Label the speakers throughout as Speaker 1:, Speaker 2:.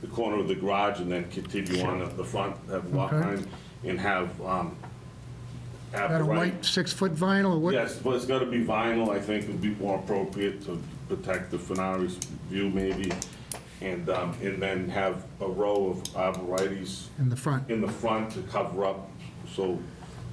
Speaker 1: the corner of the garage and then continue on at the front, have lot
Speaker 2: Okay.
Speaker 1: line, and have, um, have
Speaker 2: Got
Speaker 1: the
Speaker 2: a
Speaker 1: right...
Speaker 2: white six-foot vinyl or what?
Speaker 1: Yes, but it's gotta be vinyl, I think would be more appropriate to protect the Fenari's view maybe. And, um, and then have a row of arborvitae's
Speaker 2: In the front?
Speaker 1: in the front to cover up, so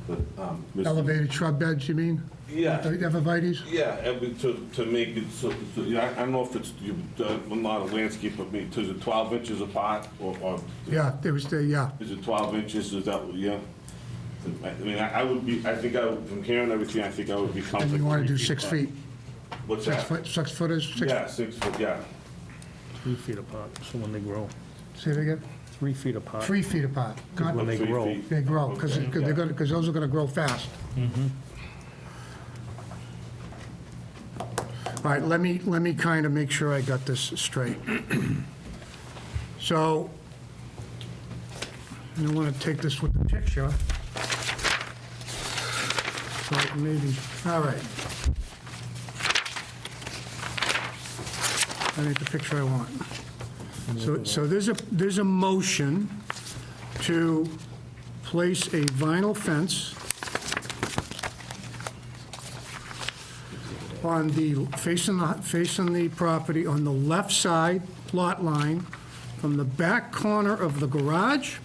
Speaker 1: that, um... Mr.
Speaker 2: Elevated shrub beds, you mean?
Speaker 1: Yeah.
Speaker 2: The Evervites?
Speaker 1: Yeah, and we- to, to make it, so, so, yeah, I I don't know if it's, you, uh, I'm not a landscaper, but me, is it twelve inches apart, or, or,
Speaker 2: Yeah, there was the, yeah.
Speaker 1: is it twelve inches, is that, yeah? I I mean, I, I would be, I think I, would- from hearing everything, I think I would be
Speaker 2: And
Speaker 1: comfortable.
Speaker 2: you want to do
Speaker 1: with
Speaker 2: six
Speaker 1: that.
Speaker 2: feet,
Speaker 1: What's
Speaker 2: six
Speaker 1: that?
Speaker 2: foot, six footers, six,
Speaker 1: Yeah, six foot, yeah.
Speaker 3: Three feet apart, so when they grow,
Speaker 2: say it again,
Speaker 3: three feet apart.
Speaker 2: three feet apart, not,
Speaker 3: When they
Speaker 1: Three
Speaker 3: grow.
Speaker 1: feet.
Speaker 2: they grow, because
Speaker 1: Okay,
Speaker 2: they're
Speaker 1: yeah.
Speaker 2: going, because those are going to grow fast. All right, let me, let me kind of make sure I got this straight. So, I want to take this with the picture. So maybe, all right. I need the picture I want. So, so there's a, there's a motion to place a vinyl fence on the, facing the, facing the property on the left side lot line from the back corner of the garage,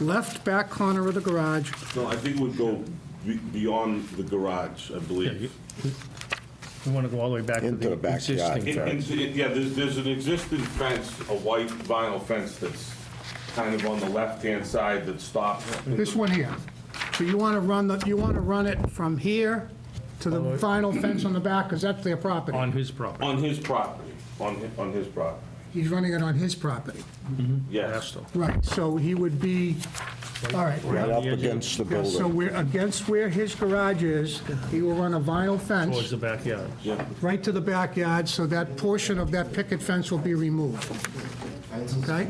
Speaker 2: left back corner of the garage,
Speaker 1: No, I think it would go be- beyond the garage, I believe.
Speaker 3: We want to go all the way back to
Speaker 4: Into
Speaker 3: the
Speaker 4: the backyard.
Speaker 3: existing
Speaker 1: It-
Speaker 3: fence.
Speaker 1: it's- it- Yeah, there's, there's an existing fence, a white vinyl fence that's kind of on the left-hand side that stops.
Speaker 2: this one here. So you want to run the, you want to run it from here to the vinyl fence on the back, because that's their property.
Speaker 3: On his property,
Speaker 1: On his property, on, hi- on his property,
Speaker 2: He's running it on his property.
Speaker 1: yes.
Speaker 3: Astor.
Speaker 2: Right, so he would be, all right.
Speaker 4: Right up
Speaker 3: the edge of-
Speaker 4: against the
Speaker 2: Yeah, so
Speaker 4: building.
Speaker 2: we're against where his garage is, he will run a vinyl
Speaker 3: towards
Speaker 2: fence
Speaker 3: the backyard.
Speaker 1: Yeah,
Speaker 2: right to the backyard, so that portion of that picket fence will be removed. Okay?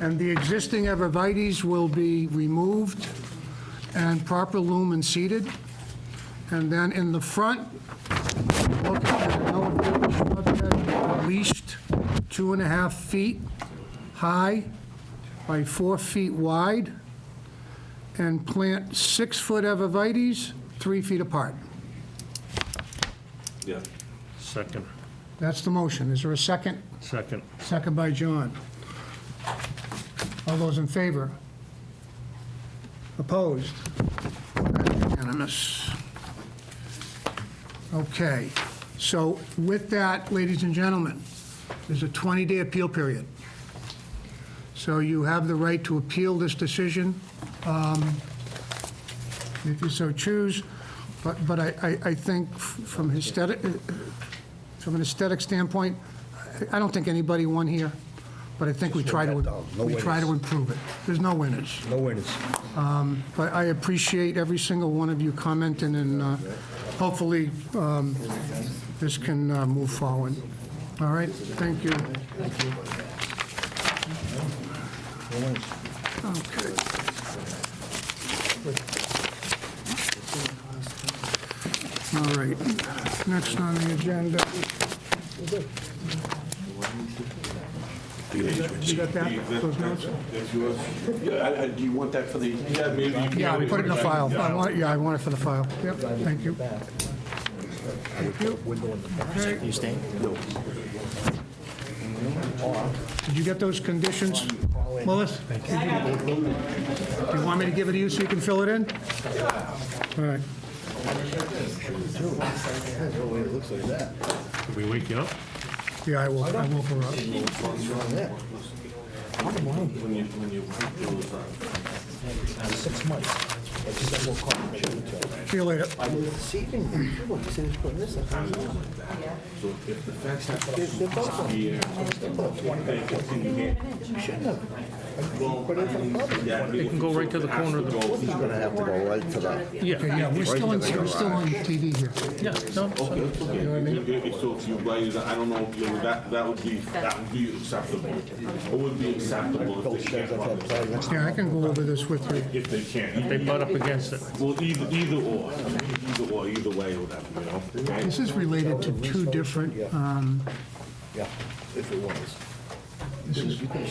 Speaker 2: And the existing evervites will be removed and proper loom and seeded. And then in the front, look, no shrub bed, at least two and a half feet high by four feet wide, and plant six-foot evervites three feet apart.
Speaker 1: yeah.
Speaker 3: Second,
Speaker 2: That's the motion. Is there a second?
Speaker 3: second.
Speaker 2: Second by John. All those in favor? Opposed? Unanimous. Okay, so with that, ladies and gentlemen, there's a 20-day appeal period. So you have the right to appeal this decision um, if you so choose, but, but I, I- I think f- from aesthetic, from an aesthetic standpoint, I- I don't think anybody won here, but I think we try to,
Speaker 4: No
Speaker 2: we try to
Speaker 4: winners.
Speaker 2: improve it. There's no winners.
Speaker 4: No winners.
Speaker 2: But I appreciate every single one of you commenting, and uh, hopefully, um, this can uh, move forward. All right, thank you. Okay. All right, next on the agenda. You got that, those notes?
Speaker 4: Do you want that for the?
Speaker 1: Yeah, maybe. you can-
Speaker 2: Yeah, put it in the file. I want, it- yeah, I want it for the file. Yep, thank you. Thank you. Okay. Did you get those conditions, Willis? Do you want me to give it to you so you can fill it in? All right.
Speaker 3: Did we wake you up?
Speaker 2: Yeah, I will, I will for up.
Speaker 5: six months. I just said, we'll call him, check with you.
Speaker 2: See you later.
Speaker 5: I was deceiving him, too, he said he's putting this up.
Speaker 1: So if the fence has
Speaker 5: They're- they're both on.
Speaker 1: Yeah.
Speaker 5: They put up twenty. You shouldn't have. You Put it in the public.
Speaker 1: It
Speaker 3: can go right to the corner of the-
Speaker 4: He's gonna have to go right to the,
Speaker 2: Okay,
Speaker 3: Yeah,
Speaker 2: yeah, we're still on, we're still on TV here.
Speaker 3: yeah, no,
Speaker 1: Okay, it's okay. If- if- So if you raise, it, I don't know, you know, that, that would be, that would be acceptable. It would be acceptable if they can't run it,
Speaker 2: Yeah, I can go over this with you.
Speaker 1: if they can't.
Speaker 3: they butt up against it.
Speaker 1: Well, either, either or, either or, either way, whatever, you know? okay?
Speaker 2: This is related to two different, um,
Speaker 5: Yeah, if it was.
Speaker 2: this is